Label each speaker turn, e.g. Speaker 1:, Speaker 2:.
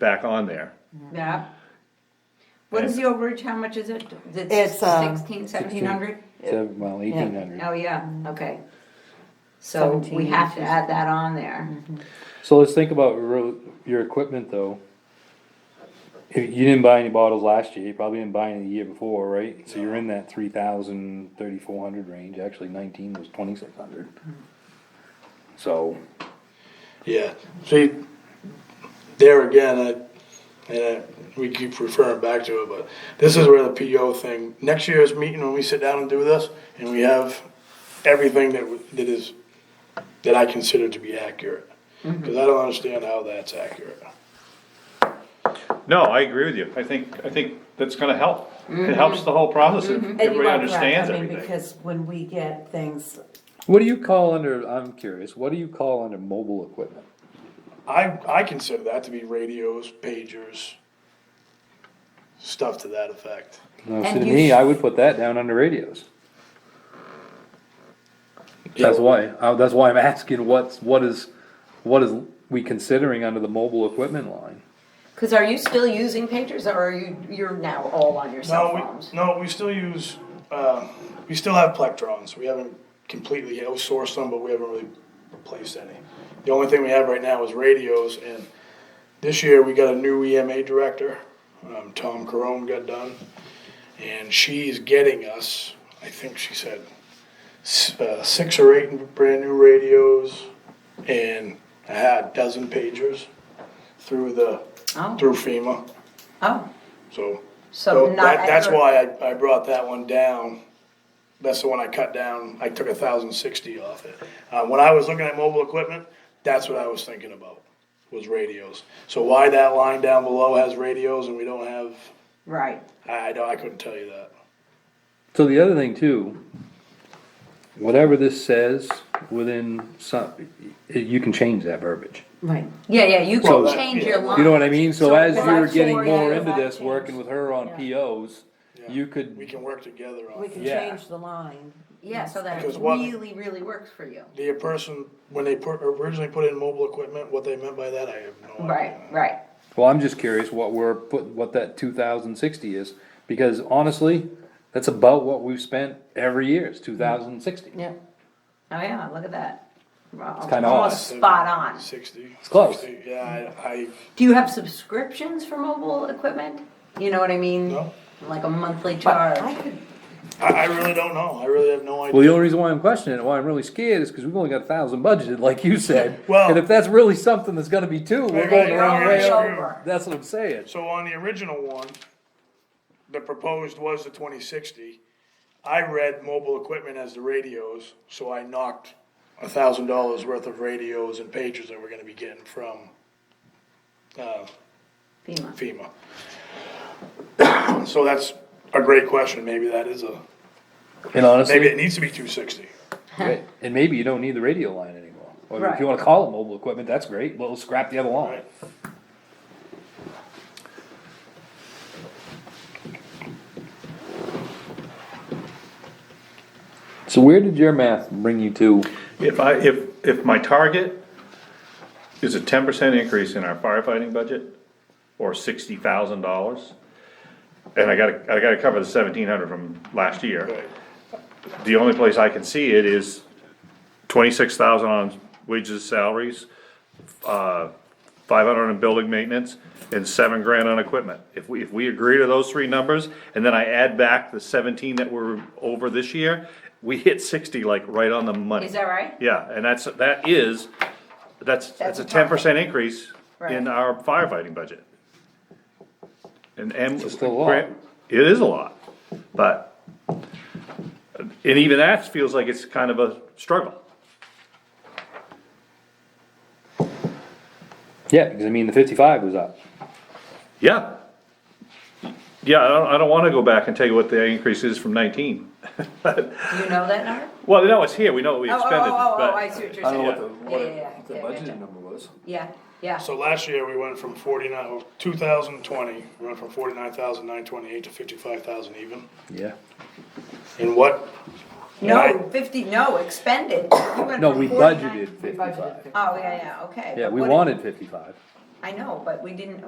Speaker 1: back on there.
Speaker 2: Yeah. What is the overage, how much is it?
Speaker 3: It's, um,
Speaker 2: Sixteen, seventeen hundred?
Speaker 4: Seven- Well, eighteen hundred.
Speaker 2: Oh, yeah, okay. So we
Speaker 3: Seventeen Mm-hmm.
Speaker 2: have to add that on there.
Speaker 4: So let's think about ro- your equipment though. If you didn't buy any bottles last year, you probably didn't buy any the year before, right? So you're in that three thousand, thirty-four hundred range, actually nineteen was twenty-six hundred. So,
Speaker 5: Yeah, see, there again, I, and I, we keep referring back to it, but this is where the PO thing, next year's meeting, when we sit down and do this, and we have everything that, w- that is, that I consider to be accurate. Cause I don't understand how that's accurate.
Speaker 1: No, I agree with you. I think, I think that's gonna help. It helps the whole process if
Speaker 3: Mm-hmm.
Speaker 1: everybody understands
Speaker 3: I mean,
Speaker 1: everything.
Speaker 3: because when we get things,
Speaker 4: what do you call under, I'm curious, what do you call under mobile equipment?
Speaker 5: I, I consider that to be radios, pagers, stuff to that effect.
Speaker 4: Now,
Speaker 3: And
Speaker 4: see, to
Speaker 3: you
Speaker 4: me,
Speaker 3: sh-
Speaker 4: I would put that down under radios. That's why, uh, that's why I'm asking what's, what is, what is we considering under the mobile equipment line?
Speaker 2: Cause are you still using pagers or are you, you're now all on your cell
Speaker 5: No,
Speaker 2: phones?
Speaker 5: we, no, we still use, uh, we still have plectrons, we haven't completely outsourced them, but we haven't really replaced any. The only thing we have right now is radios, and this year we got a new EMA director, um, Tom Carone got done. And she's getting us, I think she said, s- uh, six or eight brand new radios and a half dozen pagers through the,
Speaker 2: Oh.
Speaker 5: through FEMA,
Speaker 2: Oh,
Speaker 5: so.
Speaker 2: so
Speaker 5: So
Speaker 2: not.
Speaker 5: that, that's
Speaker 2: ever-
Speaker 5: why I, I brought that one down. That's the one I cut down. I took a thousand sixty off it. Uh, when I was looking at mobile equipment, that's what I was thinking about, was radios. So why that line down below has radios and we don't have,
Speaker 2: Right,
Speaker 5: I, I don't, I couldn't tell you that.
Speaker 4: So the other thing too, whatever this says within some, you can change that verbiage.
Speaker 3: right,
Speaker 2: yeah, yeah, you
Speaker 5: Well,
Speaker 2: can
Speaker 5: that-
Speaker 2: change
Speaker 5: yeah.
Speaker 2: your
Speaker 5: You
Speaker 2: line.
Speaker 4: You know what I mean? So as you were
Speaker 3: Five,
Speaker 4: getting
Speaker 3: four,
Speaker 4: more
Speaker 3: yeah,
Speaker 4: into
Speaker 3: five
Speaker 4: this,
Speaker 3: change.
Speaker 4: working with her on
Speaker 3: Yeah.
Speaker 4: POs,
Speaker 5: Yeah.
Speaker 4: you
Speaker 5: We
Speaker 4: could,
Speaker 5: can work together on
Speaker 3: we
Speaker 5: it.
Speaker 3: can
Speaker 4: Yeah.
Speaker 3: change the line.
Speaker 2: Yeah, so that
Speaker 5: Because what-
Speaker 2: really, really works for you.
Speaker 5: The person, when they put, originally put in mobile equipment, what they meant by that, I have no idea.
Speaker 2: Right, right.
Speaker 4: well, I'm just curious what we're putting, what that two thousand sixty is. Because honestly, that's about what we've spent every year, is two thousand sixty.
Speaker 3: Yeah.
Speaker 2: Oh, yeah, look at that. It's
Speaker 4: kinda
Speaker 2: Almost
Speaker 5: odd.
Speaker 2: spot on.
Speaker 5: Sixty. It's
Speaker 4: close.
Speaker 5: Yeah, I, I,
Speaker 2: Do you have subscriptions for mobile equipment? You know what I mean?
Speaker 5: no,
Speaker 2: Like a monthly
Speaker 3: But
Speaker 2: charge?
Speaker 3: I could,
Speaker 5: I, I really don't know. I really have no idea.
Speaker 4: Well, the only reason why I'm questioning it, why I'm really scared is because we've only got a thousand budgeted, like you said.
Speaker 5: Well-
Speaker 4: And if that's really something that's gonna be two, we're
Speaker 5: They're
Speaker 4: going the
Speaker 5: gonna
Speaker 4: wrong
Speaker 5: go
Speaker 4: way.
Speaker 5: over.
Speaker 4: up. That's what I'm saying.
Speaker 5: So on the original one, the proposed was the twenty sixty. I read mobile equipment as the radios, so I knocked a thousand dollars worth of radios and pagers that we're gonna be getting from, uh,
Speaker 2: FEMA.
Speaker 5: FEMA. So that's a great question, maybe that is a,
Speaker 4: And honestly.
Speaker 5: maybe it needs to be two sixty.
Speaker 4: Right, and maybe you don't need the radio line anymore, or if
Speaker 2: Right.
Speaker 4: you wanna call it mobile equipment, that's great, but we'll scrap the other line.
Speaker 5: Right.
Speaker 4: So where did your math bring you to?
Speaker 1: If I, if, if my target is a ten percent increase in our firefighting budget, or sixty thousand dollars, and I gotta, I gotta cover the seventeen hundred from last year,
Speaker 5: Right.
Speaker 1: the only place I can see it is twenty-six thousand on wages, salaries, uh, five hundred on building maintenance, and seven grand on equipment. If we, if we agree to those three numbers, and then I add back the seventeen that we're over this year, we hit sixty like right on the money.
Speaker 2: Is that right?
Speaker 1: Yeah, and that's, that is, that's, that's a ten percent increase
Speaker 2: Right.
Speaker 1: in our firefighting budget. And, and.
Speaker 4: It's still a lot.
Speaker 1: It is a lot, but, and even that feels like it's kind of a struggle.
Speaker 4: Yeah, because I mean, the fifty-five was up.
Speaker 1: Yeah. Yeah, I don't, I don't wanna go back and tell you what the increase is from nineteen.
Speaker 2: Do you know that number?
Speaker 1: Well, no, it's here, we know what we
Speaker 2: Oh, oh,
Speaker 1: expended,
Speaker 2: oh, oh, oh, I
Speaker 1: but,
Speaker 2: see what you're saying. Yeah, yeah, yeah. Yeah, gotcha.
Speaker 4: number was.
Speaker 2: Yeah, yeah.
Speaker 5: So last year, we went from forty-nine, oh, two thousand twenty, we went from forty-nine thousand nine twenty-eight to fifty-five thousand even.
Speaker 4: Yeah,
Speaker 5: And what?
Speaker 2: No, fifty, no, expended. You went
Speaker 4: no,
Speaker 2: from
Speaker 4: we
Speaker 2: 49
Speaker 4: budgeted fifty-five,
Speaker 2: Oh, yeah, yeah, okay.
Speaker 4: yeah,
Speaker 2: But
Speaker 4: we
Speaker 2: what-
Speaker 4: wanted fifty-five.
Speaker 2: I know, but we didn't,